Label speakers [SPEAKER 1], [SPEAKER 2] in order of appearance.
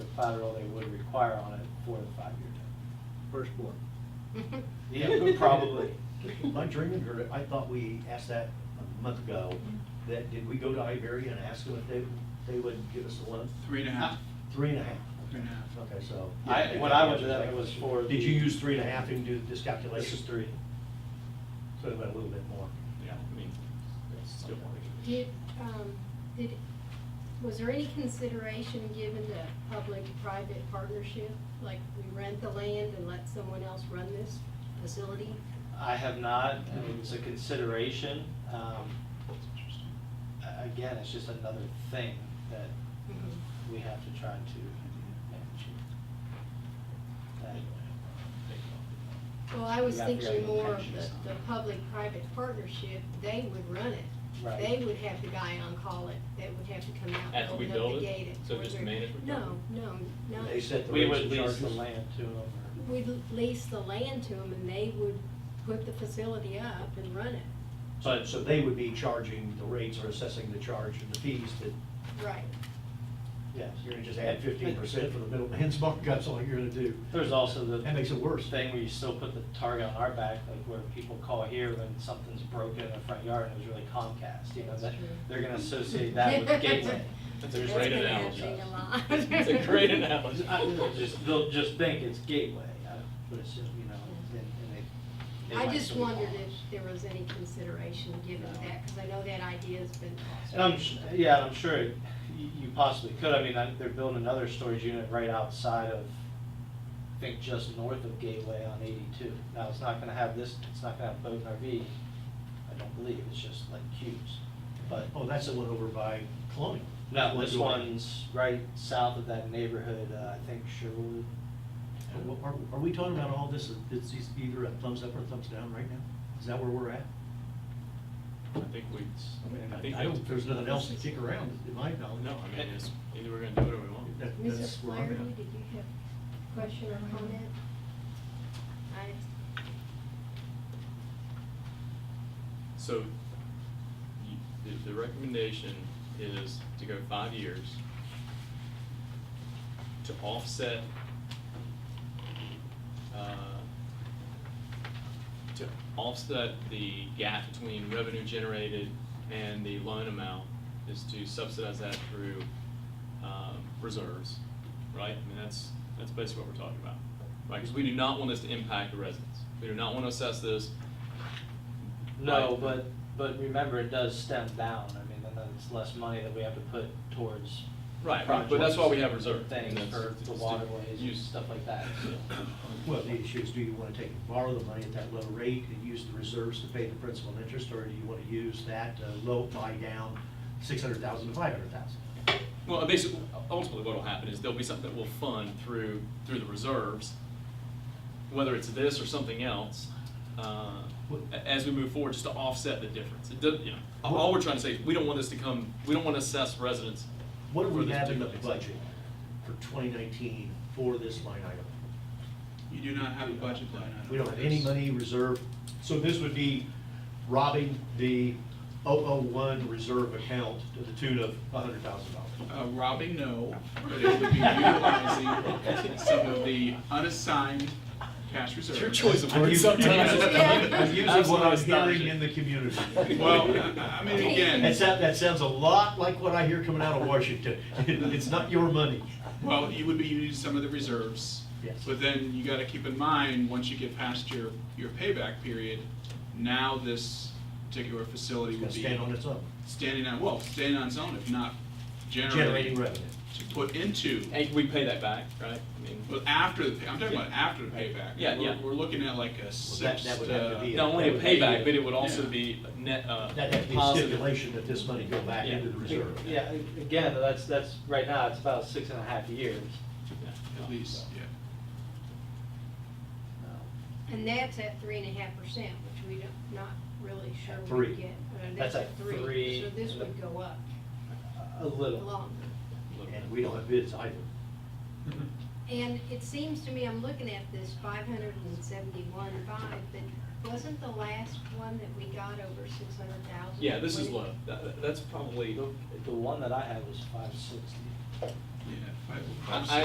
[SPEAKER 1] collateral they would require on it for the five-year term.
[SPEAKER 2] Firstborn.
[SPEAKER 3] Yeah, probably. My dreaming, or I thought we asked that a month ago, that, did we go to Iberia and ask them if they, they would give us a loan?
[SPEAKER 4] Three and a half,
[SPEAKER 3] Three and a half.
[SPEAKER 4] three and a half.
[SPEAKER 3] Okay, so.
[SPEAKER 1] I- when I went to that, it was for
[SPEAKER 3] Did you
[SPEAKER 1] the-
[SPEAKER 3] use three and a half and do this calculation?
[SPEAKER 1] This is three.
[SPEAKER 3] So it went a little bit more.
[SPEAKER 4] Yeah, I mean, it's still more.
[SPEAKER 5] Did, um, did, was there any consideration given to public-private partnership? Like, we rent the land and let someone else run this facility?
[SPEAKER 1] I have not, I mean, it's a consideration. Um, a- Again, it's just another thing that we have to try to manage. That-
[SPEAKER 5] Well, I was
[SPEAKER 1] You have to have
[SPEAKER 5] thinking more of
[SPEAKER 1] intentions.
[SPEAKER 5] the, the public-private partnership, they would run it.
[SPEAKER 1] Right.
[SPEAKER 5] They would have the guy on call it, they would have to come out and
[SPEAKER 6] After we
[SPEAKER 5] open up the
[SPEAKER 6] build it?
[SPEAKER 5] gate. it,
[SPEAKER 6] So
[SPEAKER 5] or
[SPEAKER 6] just
[SPEAKER 5] they're-
[SPEAKER 6] management
[SPEAKER 5] No,
[SPEAKER 6] company?
[SPEAKER 5] no, no.
[SPEAKER 3] They set the
[SPEAKER 1] We
[SPEAKER 3] rates
[SPEAKER 1] would
[SPEAKER 3] and
[SPEAKER 1] lease
[SPEAKER 3] charges.
[SPEAKER 1] the land to them. or-
[SPEAKER 5] We'd lease the land to them and they would put the facility up and run it.
[SPEAKER 3] So, so they would be charging the rates or assessing the charge and the fees that
[SPEAKER 5] Right.
[SPEAKER 1] Yes.
[SPEAKER 3] you're gonna just add fifteen percent for the middleman's markups, all you're gonna do.
[SPEAKER 1] There's also the.
[SPEAKER 3] That makes it worse.
[SPEAKER 1] Thing where you still put the target on our back, like where people call here when something's broken in the front yard and it was really Comcast, you know,
[SPEAKER 5] That's
[SPEAKER 1] that,
[SPEAKER 5] true.
[SPEAKER 1] they're gonna associate that with Gateway.
[SPEAKER 6] That's
[SPEAKER 1] There's
[SPEAKER 6] a great
[SPEAKER 1] gonna be
[SPEAKER 6] analogy.
[SPEAKER 1] contrast.
[SPEAKER 6] It's a great analogy.
[SPEAKER 1] I- they'll Just, they'll just think it's Gateway, I would assume, you know, and, and they. they
[SPEAKER 5] I
[SPEAKER 1] might
[SPEAKER 5] just
[SPEAKER 1] still be
[SPEAKER 5] wondered
[SPEAKER 1] wrong.
[SPEAKER 5] if there was any consideration given to that, because I know that idea's been tossed.
[SPEAKER 1] And I'm, s- yeah, and I'm sure y- you possibly could, I mean, I- they're building another storage unit right outside of, I think, just north of Gateway on eighty-two. Now, it's not gonna have this, it's not gonna have boat and RV, I don't believe, it's just like cubes, but.
[SPEAKER 3] Oh, that's the one over by Colonial.
[SPEAKER 1] No, this
[SPEAKER 3] Door.
[SPEAKER 1] one's right south of that neighborhood, uh, I think Sherwood.
[SPEAKER 3] Are, are we talking about all this, it's either a thumbs up or a thumbs down right now? Is that where we're at?
[SPEAKER 4] I think we, I think. Oh,
[SPEAKER 3] I don't, there's nothing else to kick around, in my knowledge.
[SPEAKER 4] No, I mean, it's, either we're gonna do it or we won't.
[SPEAKER 3] That-
[SPEAKER 5] Mrs.
[SPEAKER 3] that's where I'm
[SPEAKER 5] Flaherty,
[SPEAKER 3] at.
[SPEAKER 5] did you have a question or comment? I,
[SPEAKER 6] So, you, the, the recommendation is to go five years to offset, uh, to offset the gap between revenue generated and the loan amount is to subsidize that through, um, reserves, right? I mean, that's, that's basically what we're talking about, right? Because we do not want this to impact the residents. We do not want to assess this
[SPEAKER 1] No,
[SPEAKER 6] Right.
[SPEAKER 1] but, but remember, it does stem down, I mean, and then it's less money that we have to put towards.
[SPEAKER 6] Right, but- but that's why we have
[SPEAKER 1] projects,
[SPEAKER 6] reserve.
[SPEAKER 1] Things
[SPEAKER 6] That's-
[SPEAKER 1] for
[SPEAKER 6] it's
[SPEAKER 1] the
[SPEAKER 6] to
[SPEAKER 1] waterways and
[SPEAKER 6] use-
[SPEAKER 1] stuff like that, so.
[SPEAKER 3] Well, the issue is, do you wanna take, and borrow the money at that low rate and use the reserves to pay the principal and interest, or do you wanna use that uh, low buy down, six hundred thousand to five hundred thousand?
[SPEAKER 6] Well, basically, ultimately what'll happen is there'll be something that we'll fund through, through the reserves, whether it's this or something else, uh, a- as we move forward, just to offset the difference. It does, you know, all- all we're trying to say is, we don't want this to come, we don't want to assess residents.
[SPEAKER 3] What do
[SPEAKER 6] for
[SPEAKER 3] we
[SPEAKER 6] this
[SPEAKER 3] have in the
[SPEAKER 6] particular
[SPEAKER 3] budget
[SPEAKER 6] thing.
[SPEAKER 3] for twenty nineteen for this line item?
[SPEAKER 4] You do not have a budget line item.
[SPEAKER 3] We don't
[SPEAKER 4] for
[SPEAKER 3] have any
[SPEAKER 4] this.
[SPEAKER 3] money reserved, so this would be robbing the 001 reserve account to the tune of $100,000.
[SPEAKER 4] Uh, robbing, no, but it would be utilizing some of the unassigned cash reserves.
[SPEAKER 6] Your choice of words
[SPEAKER 3] I'm using-
[SPEAKER 6] sometimes.
[SPEAKER 5] Yeah.
[SPEAKER 3] I'm using what I'm
[SPEAKER 6] Absolutely
[SPEAKER 3] hearing in the community.
[SPEAKER 4] Well, I I mean,
[SPEAKER 3] That
[SPEAKER 4] again,
[SPEAKER 3] sounds, that sounds a lot like what I hear coming out of Washington. It's not your money.
[SPEAKER 4] well, you would be using some of the reserves.
[SPEAKER 3] Yes.
[SPEAKER 4] But then you gotta keep in mind, once you get past your, your payback period, now this particular facility
[SPEAKER 3] It's
[SPEAKER 4] would
[SPEAKER 3] gonna
[SPEAKER 4] be.
[SPEAKER 3] stand on its own,
[SPEAKER 4] Standing on, well, standing on its own, if not
[SPEAKER 3] generating
[SPEAKER 4] generating.
[SPEAKER 3] revenue.
[SPEAKER 4] To put into,
[SPEAKER 6] And we pay that back, right? I mean,
[SPEAKER 4] well, after the, pay- I'm talking about after the payback.
[SPEAKER 6] Yeah,
[SPEAKER 4] We're-
[SPEAKER 6] yeah.
[SPEAKER 4] We're looking at like a six
[SPEAKER 3] that would have to be
[SPEAKER 4] to,
[SPEAKER 3] a-
[SPEAKER 6] Not only a payback, but it would also
[SPEAKER 4] Yeah.
[SPEAKER 6] be a net, uh,
[SPEAKER 3] That'd have to be a
[SPEAKER 6] positive.
[SPEAKER 3] stipulation that this money go back into the reserve.
[SPEAKER 1] Yeah, a- again, that's, that's, right now, it's about six and a half years.
[SPEAKER 6] Yeah.
[SPEAKER 4] at least, yeah.
[SPEAKER 1] Um,
[SPEAKER 5] and that's at three and a half percent, which we don't, not really sure
[SPEAKER 3] At
[SPEAKER 5] we
[SPEAKER 3] three.
[SPEAKER 5] get. Uh,
[SPEAKER 1] That's at three.
[SPEAKER 5] So this would go up
[SPEAKER 1] A little.
[SPEAKER 5] longer.
[SPEAKER 3] And we don't have bids either.
[SPEAKER 5] And it seems to me, I'm looking at this five hundred and seventy-one five, but wasn't the last one that we got over six hundred thousand?
[SPEAKER 6] Yeah, this is low. That- that- that's probably.
[SPEAKER 1] The the one that I had was five sixty.
[SPEAKER 4] Yeah, five-
[SPEAKER 6] I-
[SPEAKER 4] five,
[SPEAKER 6] I-